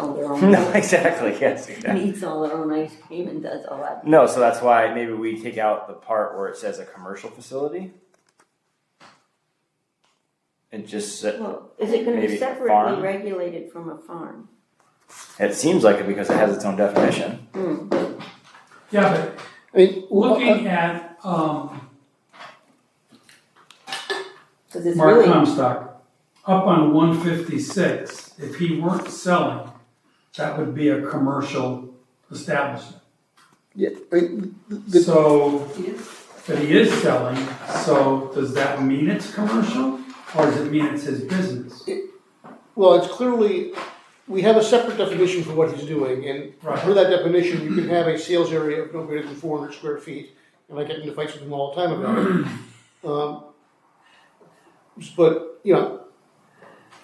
all their own. No, exactly, yes, And exactly. eats all their own ice cream and does all that. No, so that's why maybe we take out the part where it says a commercial facility. And just, sa- Well, is it gonna Maybe be separately farm? regulated from a farm? it seems like it because it has its own definition. Hmm, Yeah, I mean, but well, uh, looking at, um, cause it's Mark really, Comstock, up on one fifty-six, if he weren't selling, that would be a commercial establishment. yeah, I mean, the- So, but he is selling, so does that mean it's commercial? Or does it mean it's his business? well, it's clearly, we have a separate definition for what he's doing, and per Right, that definition, you can have a sales area of no greater than four hundred square feet, and I get into fights with him all the time about it. Um, But, you know,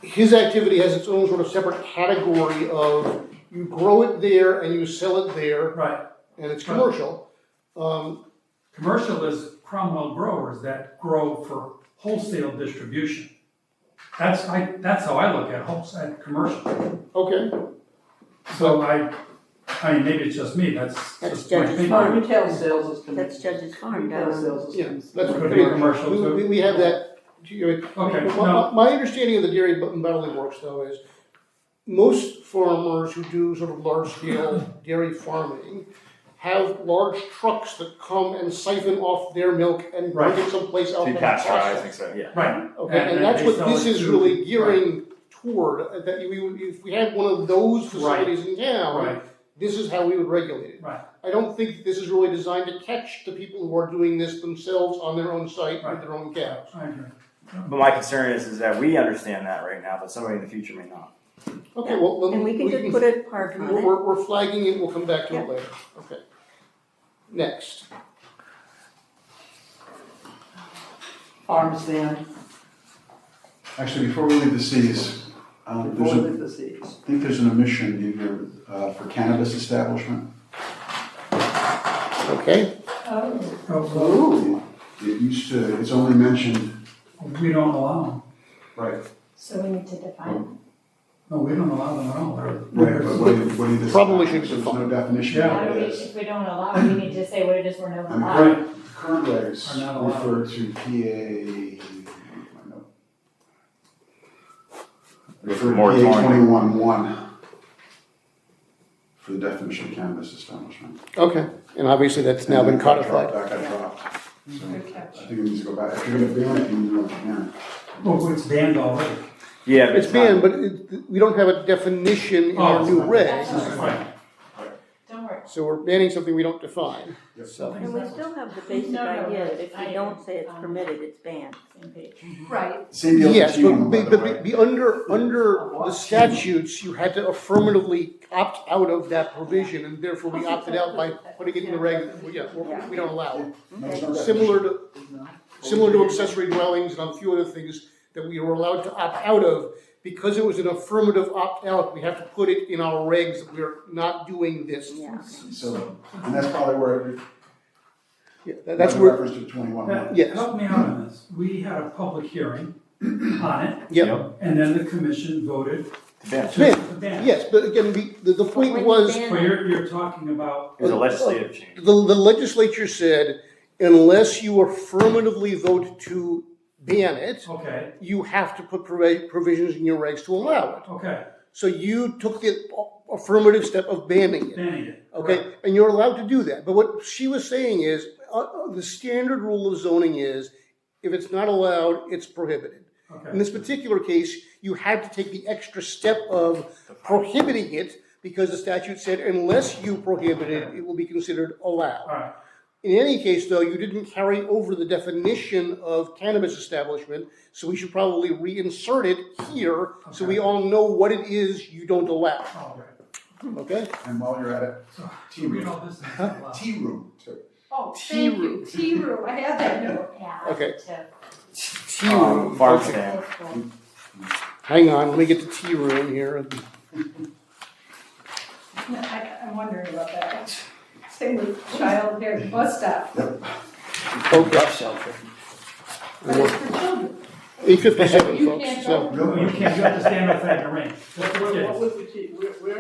his activity has its own sort of separate category of, you grow it there and you sell it there, right. and it's Right. commercial. Um, Commercial is Cromwell growers that grow for wholesale distribution. That's, I, that's how I look at wholesale, at commercial. okay, So I, I mean, maybe it's just me, that's That's just my judge's opinion. farm. Retail sales is. con- that's Judge's Farm down Retail on sales Yeah, is. that's Could be commercial We- too. We, we have that, you know, Okay, My- no, My, my understanding of the dairy and bottling works though is most farmers who do sort of large scale dairy farming have large trucks that come and siphon off their milk and bring it someplace else. and so. Yeah. right, Okay, And- and and that's they what sell this it is to- really gearing toward, uh, that we, would- if we had one of those facilities in town, right, this is how we would regulate it. Right. I don't think this is really designed to catch the people who are doing this themselves on their own site with Right. their own cows. I agree. But my concern is, is that we understand that right now, but somebody in the future may not. Okay, well, then And we can just put a park on We're, it. we're, we're flagging it, we'll come back to it later, okay. Next, Farm stand, Actually, before we leave the Cs, um, there's before a, the disease. I think there's an omission in here, uh, for cannabis establishment. okay, Oh, Oh, It used to, it's only mentioned, well, We don't allow them, right, So we need to define. no, we don't allow them at all. right, but what did, what did this? Probably should be There's no definition Yeah. of How what do it we, is. if we don't allow, we need to say what it is we're not I mean, allowed. current, current Are not allowed. regs refer to PA. Refer to PA Moratorium. twenty-one one for the definition of cannabis establishment. okay, and obviously that's now been And that got dropped, codified. That got dropped. So, Good catch. I think it needs to go back, if you're gonna ban it, you need to go back. Well, it's banned already. Yeah, but It's it's banned, not, but it, we don't have a definition in our Oh, new it's not- regs, Right, Don't worry. so we're banning something we don't define. Yep. So, And we still have the basic No, no, idea that if I- we don't say it's um, permitted, it's banned. Same page. Right. Same deal with yes, the but, T1, by be- the but, way. be- be under, under the statutes, you had to affirmatively opt out of that provision, and therefore we opted out by putting it in the reg, we, yeah, we- we don't allow it. Similar to similar to accessory dwellings and a few other things that we were allowed to opt out of. Because it was an affirmative opt-out, we have to put it in our regs, that we're not doing this. Yeah. So, and that's probably where, it- Yeah, that- that's That's a where, reference to twenty-one. Now, Yes. help me out on this, we had a public hearing on it, yeah, and then the commission voted it's banned. to Ban. ban. it. yes, but again, we- the, the But point when was, you ban Well, it- you're, you're talking about, It was a legislative change. the, the legislature said, unless you affirmatively vote to ban it, okay, you have to put provi- provisions in your regs to allow it. okay, So you took the affirmative step of banning it. banning it. Okay, and you're allowed to do that, but what she was saying is, uh, uh, the standard rule of zoning is, if it's not allowed, it's prohibited. In Okay, this particular case, you had to take the extra step of prohibiting it, because the statute said unless you prohibit it, it will be considered all allowed. right, In any case, though, you didn't carry over the definition of cannabis establishment, so we should probably reinsert it here, so we all know what it is you don't allow, all right. okay? And while you're at it, So, Tea read room. all this and out loud. Tea room, too. Oh, Tea thank you, T Roo, I have that note. uh, I have Okay. Um, farm Okay. stand. Hang on, let me get the tea room here. I, I'm wondering about that. Same with childcare and bus stop, Okay, shelter. but it's for children. eight fifty-seven, You folks, can't so. go- Well, You can't, you have to stand outside the ring, that's what it Where, is. what was the key, where, where